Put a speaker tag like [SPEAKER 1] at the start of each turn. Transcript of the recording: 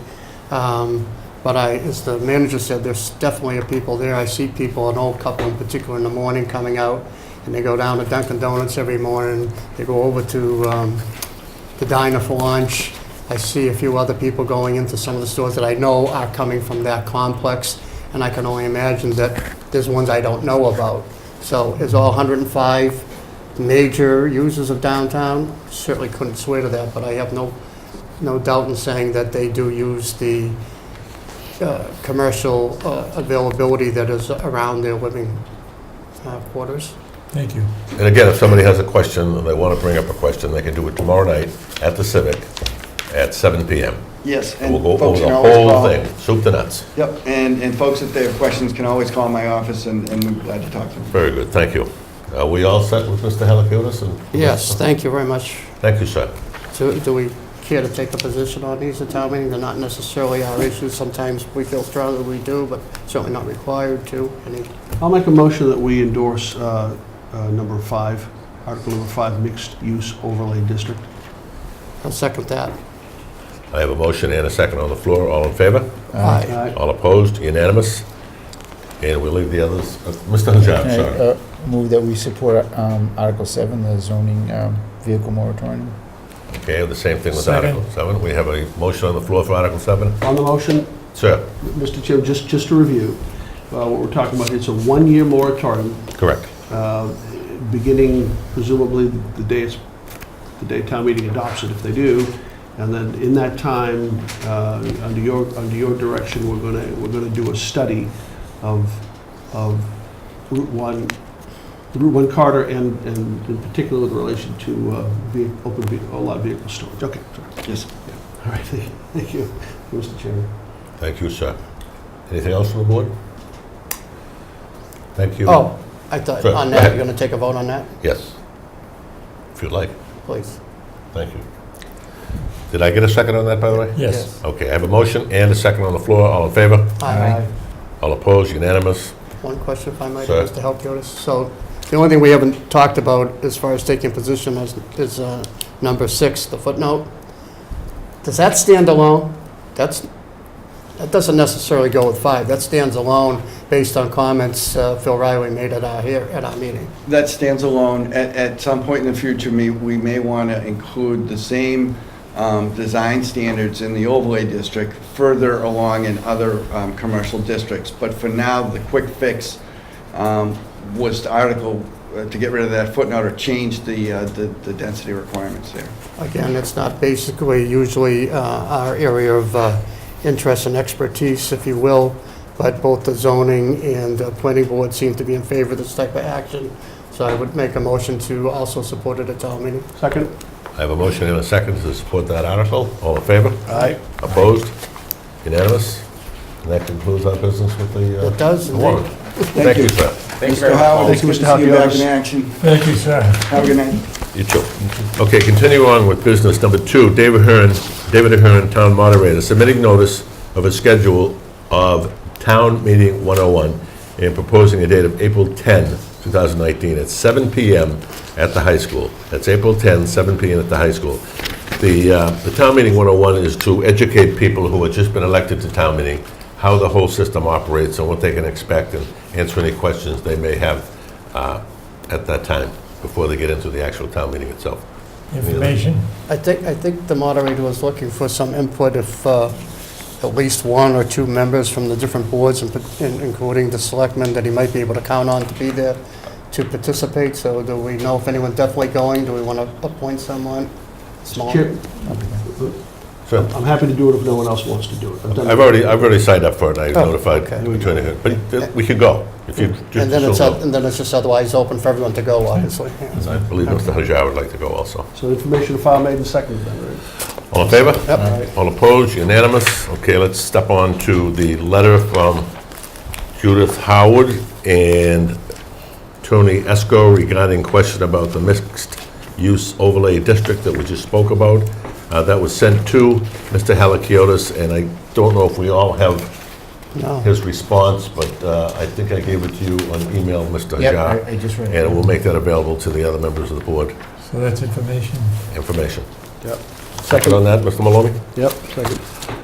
[SPEAKER 1] Um, But I, as the manager said, there's definitely a people there. I see people, an old couple in particular, in the morning coming out, and they go down to Dunkin' Donuts every morning. They go over to um, the diner for lunch. I see a few other people going into some of the stores that I know are coming from that complex, and I can only imagine that there's ones I don't know about. So is all 105 major users of downtown? Certainly couldn't swear to that, but I have no, no doubt in saying that they do use the uh, commercial uh, availability that is around their living uh, quarters.
[SPEAKER 2] Thank you.
[SPEAKER 3] And again, if somebody has a question, and they want to bring up a question, they can do it tomorrow night at the Civic at 7 PM.
[SPEAKER 4] Yes,
[SPEAKER 3] And
[SPEAKER 4] and
[SPEAKER 3] we'll go
[SPEAKER 4] folks
[SPEAKER 3] over
[SPEAKER 4] can
[SPEAKER 3] the
[SPEAKER 4] always
[SPEAKER 3] whole
[SPEAKER 4] call.
[SPEAKER 3] thing, soup to nuts.
[SPEAKER 4] Yep, and, and folks, if they have questions, can always call my office, and, and we're glad to talk to them.
[SPEAKER 3] Very good, thank you. Are we all set with Mr. Halakiotis? and-
[SPEAKER 1] Yes, thank you very much.
[SPEAKER 3] Thank you, sir.
[SPEAKER 1] Do do we care to take a position on these at town meeting? They're not necessarily our issues. Sometimes we feel strongly we do, but certainly not required to. Any-
[SPEAKER 5] I'll make a motion that we endorse uh, uh, number five, Article number five, mixed-use overlay district.
[SPEAKER 1] I'll second that.
[SPEAKER 3] I have a motion and a second on the floor, all in favor?
[SPEAKER 1] Aye.
[SPEAKER 5] Aye.
[SPEAKER 3] All opposed, unanimous? And we'll leave the others, uh, Mr. Hajar,
[SPEAKER 6] Can I,
[SPEAKER 3] sorry.
[SPEAKER 6] uh, Move that we support um, Article 7, the zoning um, vehicle moratorium.
[SPEAKER 3] Okay, the same thing with
[SPEAKER 2] Second.
[SPEAKER 3] Article 7. We have a motion on the floor for Article 7.
[SPEAKER 5] On the motion,
[SPEAKER 3] Sir,
[SPEAKER 5] Mr. Chair, just, just to review, uh, what we're talking about, it's a one-year moratorium,
[SPEAKER 3] correct.
[SPEAKER 5] uh, beginning presumably the day it's, the day town meeting adopts it, if they do. And then in that time, uh, under your, under your direction, we're gonna, we're gonna do a study of, of Route 1, Route 1 Carter and, and in particular with relation to uh, ve- open, ve- allowed vehicle storage. Okay, sorry.
[SPEAKER 4] Yes.
[SPEAKER 5] all right, thank you, thank you, Mr. Chairman.
[SPEAKER 3] Thank you, sir. Anything else from the board? Thank you.
[SPEAKER 1] Oh, I thought,
[SPEAKER 3] Sure,
[SPEAKER 1] on
[SPEAKER 3] go
[SPEAKER 1] that,
[SPEAKER 3] ahead.
[SPEAKER 1] you're going to take a vote on that,
[SPEAKER 3] Yes. If you'd like,
[SPEAKER 1] please?
[SPEAKER 3] thank you. Did I get a second on that, by the way?
[SPEAKER 2] Yes.
[SPEAKER 3] Okay, I have a motion and a second on the floor, all in favor?
[SPEAKER 1] Aye.
[SPEAKER 3] All opposed, unanimous?
[SPEAKER 1] One question, if I might,
[SPEAKER 3] Sir.
[SPEAKER 1] Mr. Halkiotis. So the only thing we haven't talked about as far as taking position is, is uh, number six, the footnote. Does that stand alone? That's, that doesn't necessarily go with five. That stands alone based on comments uh, Phil Riley made at our, here, at our meeting.
[SPEAKER 4] That stands alone. At, at some point in the future, me, we may want to include the same, um, design standards in the overlay district further along in other, um, commercial districts. But for now, the quick fix, um, was to article, uh, to get rid of that footnote or change the, uh, the, the density requirements there.
[SPEAKER 1] Again, it's not basically usually uh, our area of uh, interest and expertise, if you will, but both the zoning and the planning board seem to be in favor of this type of action. So I would make a motion to also support it at town meeting.
[SPEAKER 5] Second?
[SPEAKER 3] I have a motion and a second to support that article, all in favor?
[SPEAKER 5] Aye.
[SPEAKER 3] Opposed, unanimous? And that concludes our business with the
[SPEAKER 1] It
[SPEAKER 3] uh,
[SPEAKER 1] does. and they-
[SPEAKER 3] warrant. Thank you, sir.
[SPEAKER 4] Thank you very much.
[SPEAKER 5] Thank you,
[SPEAKER 4] Mr.
[SPEAKER 5] Mr.
[SPEAKER 4] Howell, it's good to see you back
[SPEAKER 5] Halkias.
[SPEAKER 4] in action.
[SPEAKER 2] Thank you, sir.
[SPEAKER 4] Have a good night.
[SPEAKER 3] You too. Okay, continue on with business number two, David Ahern, David Ahern, Town Moderator, submitting notice of a schedule of Town Meeting 101 and proposing a date of April 10, 2019, at 7 PM at the high school. That's April 10, 7 PM at the high school. The, uh, the Town Meeting 101 is to educate people who have just been elected to town meeting how the whole system operates and what they can expect and answer any questions they may have uh, at that time, before they get into the actual town meeting itself.
[SPEAKER 2] Information?
[SPEAKER 1] I think, I think the moderator was looking for some input if uh, at least one or two members from the different boards, and pat- in- including the selectmen, that he might be able to count on to be there to participate. So do we know if anyone's definitely going? Do we want to appoint someone? Small?
[SPEAKER 5] Chair,
[SPEAKER 3] So,
[SPEAKER 5] I'm happy to do it if no one else wants to do it. I've done
[SPEAKER 3] I've already, I've already signed up for it, I
[SPEAKER 1] Oh,
[SPEAKER 3] notified
[SPEAKER 1] okay.
[SPEAKER 3] Attorney Hearn, but th- we could go, if you just
[SPEAKER 1] And then it's,
[SPEAKER 3] so
[SPEAKER 1] oth-
[SPEAKER 3] know.
[SPEAKER 1] and then it's just otherwise open for everyone to go, obviously.
[SPEAKER 3] I believe Mr. Hajar would like to go also.
[SPEAKER 5] So information file made and seconded, then, right?
[SPEAKER 3] All in favor? All opposed, unanimous? Okay, let's step on to the letter from Judith Howard and Tony Esco regarding question about the mixed-use overlay district that we just spoke about. Uh, That was sent to Mr. Halakiotis, and I don't know if we all have
[SPEAKER 1] No.
[SPEAKER 3] his response, but uh, I think I gave it to you on email, Mr.
[SPEAKER 6] Yep,
[SPEAKER 3] Hajar,
[SPEAKER 6] I- I just read it.
[SPEAKER 3] and we'll make that available to the other members of the board,
[SPEAKER 2] So that's information.
[SPEAKER 3] information.
[SPEAKER 5] Yep.
[SPEAKER 3] Second on that, Mr. Maloney?
[SPEAKER 5] Yep, second.